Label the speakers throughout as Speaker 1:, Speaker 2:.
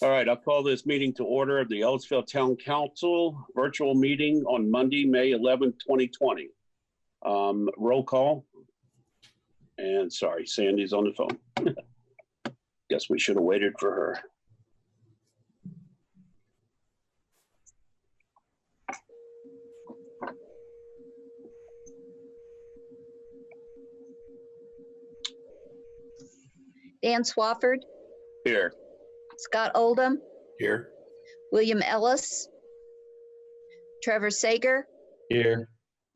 Speaker 1: All right, I'll call this meeting to order of the Ellisville Town Council virtual meeting on Monday, May 11, 2020. Um, Roll call. And sorry, Sandy's on the phone. Guess we should have waited for her.
Speaker 2: Dan Swafford,
Speaker 1: Here,
Speaker 2: Scott Oldham,
Speaker 3: Here.
Speaker 2: William Ellis, Trevor Sager,
Speaker 3: Here.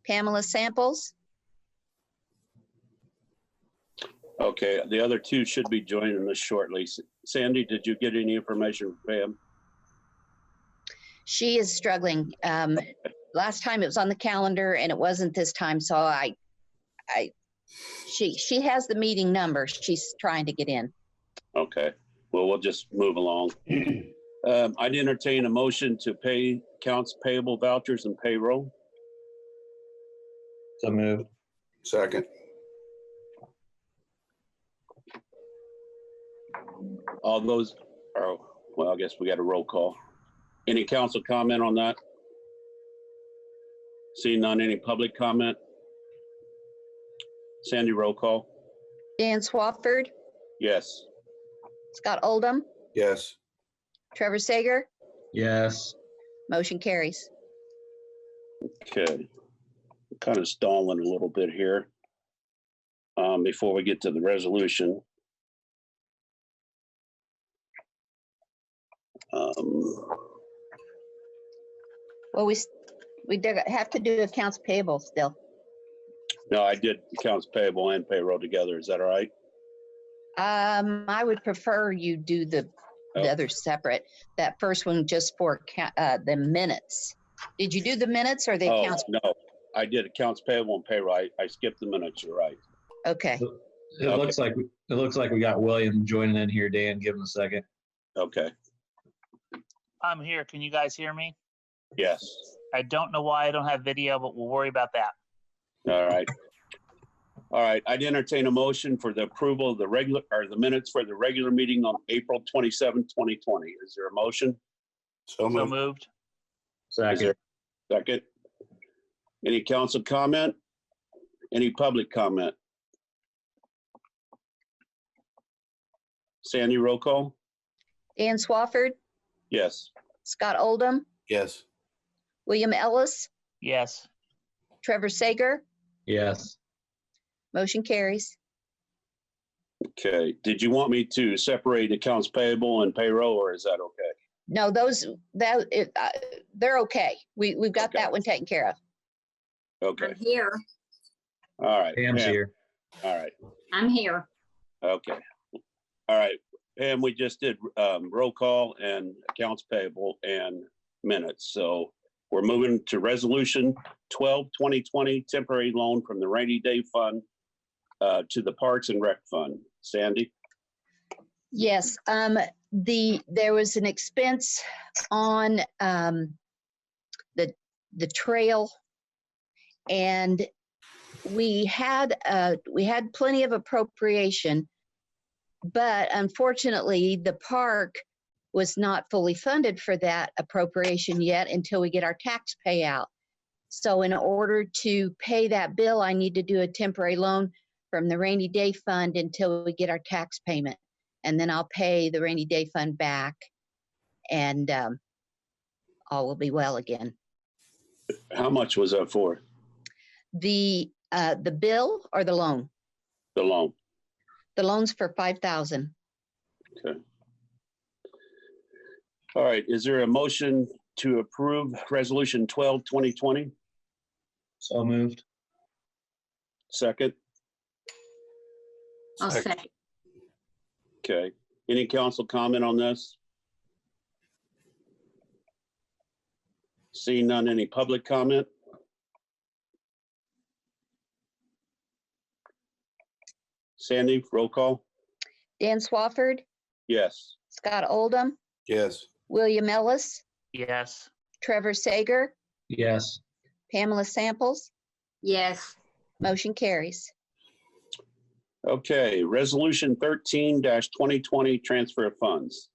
Speaker 2: Pamela Samples,
Speaker 1: okay, the other two should be joining us shortly. Sandy, did you get any information, Pam?
Speaker 2: she is struggling. Um, last time it was on the calendar and it wasn't this time, so I, I, she, she has the meeting number. She's trying to get in.
Speaker 1: Okay, well, we'll just move along. Um, I'd entertain a motion to pay accounts payable vouchers and payroll.
Speaker 3: So moved.
Speaker 4: Second,
Speaker 1: All those, oh, well, I guess we got a roll call. Any council comment on that? Seeing none, any public comment? Sandy, roll call.
Speaker 2: Dan Swafford,
Speaker 1: Yes.
Speaker 2: Scott Oldham,
Speaker 4: yes.
Speaker 2: Trevor Sager,
Speaker 3: Yes.
Speaker 2: motion carries.
Speaker 1: Okay. Kind of stalling a little bit here. Um, before we get to the resolution. Um,
Speaker 2: Well, we, s- we do have to do accounts payable still.
Speaker 1: no, I did accounts payable and payroll together. Is that all right?
Speaker 2: Um, I would prefer you do the,
Speaker 1: Oh.
Speaker 2: the other separate, that first one just for, ca- uh, the minutes. Did you do the minutes or the
Speaker 1: Oh,
Speaker 2: accounts?
Speaker 1: No, I did accounts payable and payroll. I, I skipped the minutes, you're right.
Speaker 2: Okay,
Speaker 3: It
Speaker 1: Okay.
Speaker 3: looks like, it looks like we got William joining in here. Dan, give him a second.
Speaker 1: Okay,
Speaker 5: I'm here. Can you guys hear me?
Speaker 1: yes,
Speaker 5: I don't know why I don't have video, but we'll worry about that.
Speaker 1: all right. All right, I'd entertain a motion for the approval of the regular, or the minutes for the regular meeting on April 27, 2020. Is there a motion?
Speaker 4: So
Speaker 5: So
Speaker 4: moved,
Speaker 5: moved.
Speaker 1: Is there
Speaker 3: Second.
Speaker 1: a Second. Any council comment? Any public comment? Sandy, roll call?
Speaker 2: Dan Swafford,
Speaker 1: Yes.
Speaker 2: Scott Oldham,
Speaker 4: yes.
Speaker 2: William Ellis,
Speaker 5: Yes.
Speaker 2: Trevor Sager,
Speaker 3: Yes.
Speaker 2: motion carries.
Speaker 1: Okay, did you want me to separate accounts payable and payroll, or is that okay?
Speaker 2: No, those, that, it, uh, they're okay. We, we've got
Speaker 1: Okay.
Speaker 2: that one taken care of.
Speaker 1: Okay,
Speaker 6: I'm here.
Speaker 1: all right.
Speaker 3: Pam's
Speaker 1: Pam,
Speaker 3: here.
Speaker 1: All right,
Speaker 6: I'm here.
Speaker 1: okay. All right, Pam, we just did um, roll call and accounts payable and minutes. So we're moving to resolution 12, 2020, temporary loan from the rainy day fund uh, to the Parks and Rec Fund. Sandy?
Speaker 2: Yes, um, the, there was an expense on, um, the, the trail. And we had, uh, we had plenty of appropriation. But unfortunately, the park was not fully funded for that appropriation yet until we get our tax payout. So in order to pay that bill, I need to do a temporary loan from the rainy day fund until we get our tax payment and then I'll pay the rainy day fund back, and um, all will be well again.
Speaker 1: How much was that for,
Speaker 2: The uh, the bill or the loan?
Speaker 1: the loan?
Speaker 2: The loan's for five thousand.
Speaker 1: All right, is there a motion to approve resolution 12, 2020?
Speaker 3: So moved.
Speaker 1: Second?
Speaker 6: I'll
Speaker 4: Sec-
Speaker 6: say,
Speaker 1: Okay, any council comment on this? Seeing none, any public comment? Sandy, roll call?
Speaker 2: Dan Swafford,
Speaker 1: Yes.
Speaker 2: Scott Oldham,
Speaker 4: Yes,
Speaker 2: William Ellis,
Speaker 5: Yes.
Speaker 2: Trevor Sager,
Speaker 3: Yes.
Speaker 2: Pamela Samples.
Speaker 6: yes,
Speaker 2: Motion carries.
Speaker 1: Okay, resolution thirteen twenty twenty, transfer of funds.